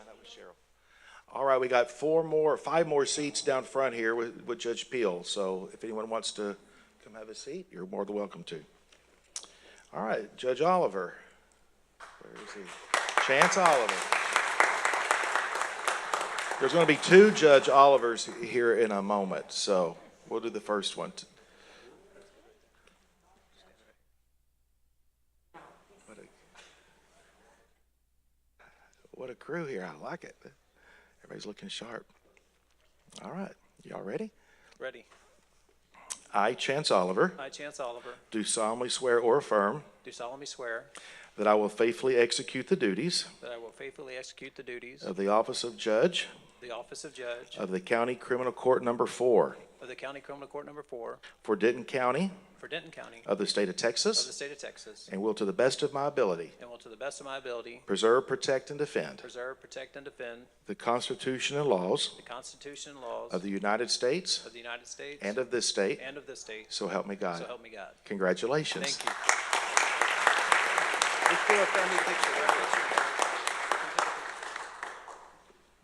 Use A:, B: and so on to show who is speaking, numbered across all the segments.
A: I know it was Cheryl. All right, we got four more, five more seats down front here with, with Judge Peel. So if anyone wants to come have a seat, you're more than welcome to. All right, Judge Oliver. Where is he? Chance Oliver. There's going to be two Judge Olivers here in a moment, so we'll do the first one. What a- What a crew here. I like it. Everybody's looking sharp. All right, y'all ready?
B: Ready.
A: I, Chance Oliver,
B: I, Chance Oliver,
A: do solemnly swear or affirm
B: do solemnly swear
A: that I will faithfully execute the duties
B: that I will faithfully execute the duties of
A: of the office of judge
B: the office of judge
A: of the County Criminal Court Number Four
B: of the County Criminal Court Number Four
A: for Denton County
B: for Denton County
A: of the state of
B: of the
A: Texas
B: state of Texas,
A: and will to the best of my ability
B: and will to the best of my ability
A: preserve, protect, and defend
B: preserve, protect, and defend
A: the Constitution and laws
B: the Constitution and laws
A: of the United States
B: of the United States
A: and of this state,
B: and of this state.
A: so help me God.
B: So help me God.
A: Congratulations.
B: Thank you. Let's do a family picture. right?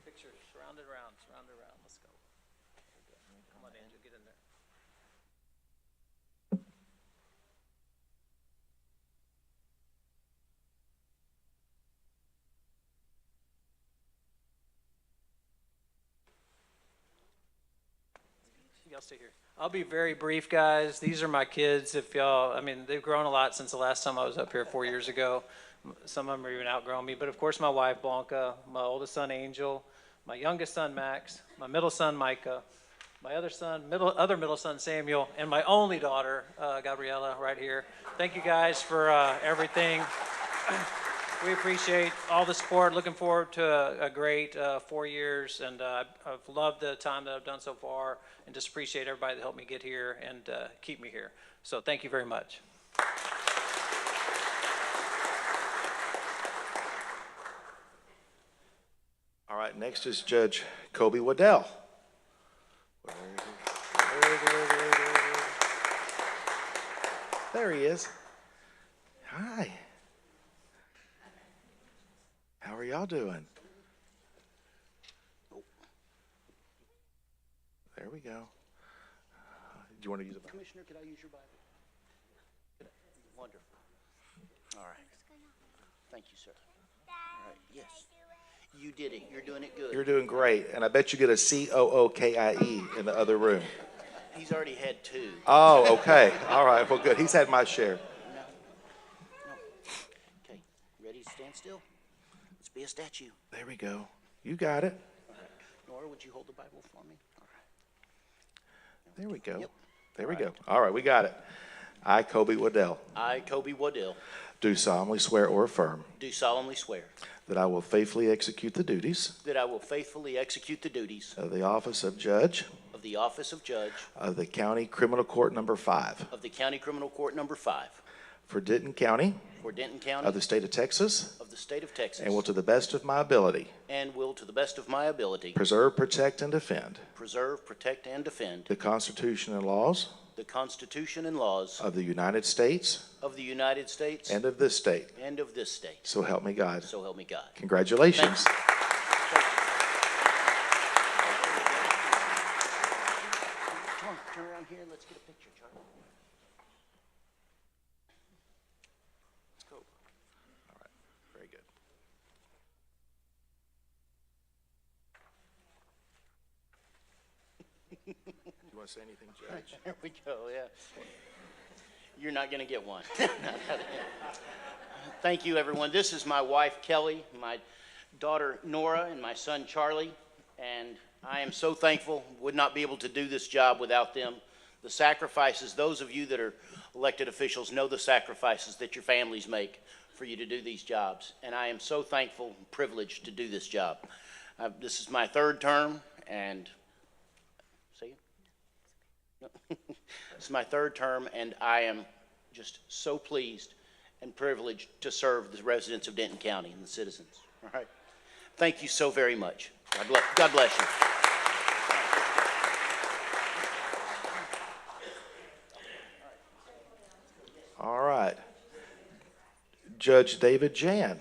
B: Picture, surrounded around, surrounded around, let's go. Come on, Andrew, get in there. Y'all stay here. I'll be very brief, guys. These are my kids. If y'all, I mean, they've grown a lot since the last time I was up here four years ago. M- Some of them are even outgrown me. But of course, my wife, Blanca, my oldest son, Angel, my youngest son, Max, my middle son, Micah, my other son, middle, other middle son, Samuel, and my only daughter, uh, Gabriella, right here. Thank you guys for uh, everything. We appreciate all the support. Looking forward to a, a great uh, four years, and uh, I've loved the time that I've done so far, and just appreciate everybody that helped me get here and uh, keep me here. So thank you very much.
A: All right, next is Judge Kobe Waddell. Where is he? Where is he? Where is he? Where is he? Where is he? There he is. Hi. How are y'all doing? There we go. Do you want to use a
C: Commissioner, could I use your Bible? Wonderful. All right. Thank you, sir. All right, yes. You did it. You're doing it good.
A: You're doing great, and I bet you get a C O O K I E in the other room.
C: He's already had two.
A: Oh, okay. All right. Well, good. He's had my share.
C: No. No. Okay, ready to stand still? Let's be a statue.
A: There we go. You got it.
C: Nora, would you hold the Bible for me? All right.
A: There we go.
C: Yep.
A: There we go. All right, we got it. I, Kobe Waddell,
C: I, Kobe Waddell,
A: do solemnly swear or affirm
C: do solemnly swear
A: that I will faithfully execute the duties
C: that I will faithfully execute the duties
A: of the office of judge
C: of the office of judge
A: of the County Criminal Court Number Five
C: of the County Criminal Court Number Five
A: for Denton County
C: for Denton
A: of
C: County
A: the state of Texas
C: of the state of Texas.
A: and will to the best of my ability
C: And will, to the best of my ability,
A: preserve, protect, and defend
C: preserve, protect, and defend
A: the Constitution and laws
C: the Constitution and laws
A: of the United States
C: of the United States
A: and of this state.
C: and of this state.
A: So help me God.
C: So help me God.
A: Congratulations.
C: Come on, turn around here and let's get a picture, Charlie. Let's go.
A: Very good. You want to say anything, Judge?
C: There we go, yeah. You're not going to get one. Thank you, everyone. This is my wife, Kelly, my daughter, Nora, and my son, Charlie. And I am so thankful, would not be able to do this job without them. The sacrifices, those of you that are elected officials know the sacrifices that your families make for you to do these jobs. And I am so thankful and privileged to do this job. Uh, This is my third term, and, see you? It's my third term, and I am just so pleased and privileged to serve the residents of Denton County and the citizens. All right? Thank you so very much. God bless, God bless you.
A: All right. Judge David Jan,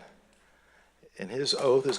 A: and his oath is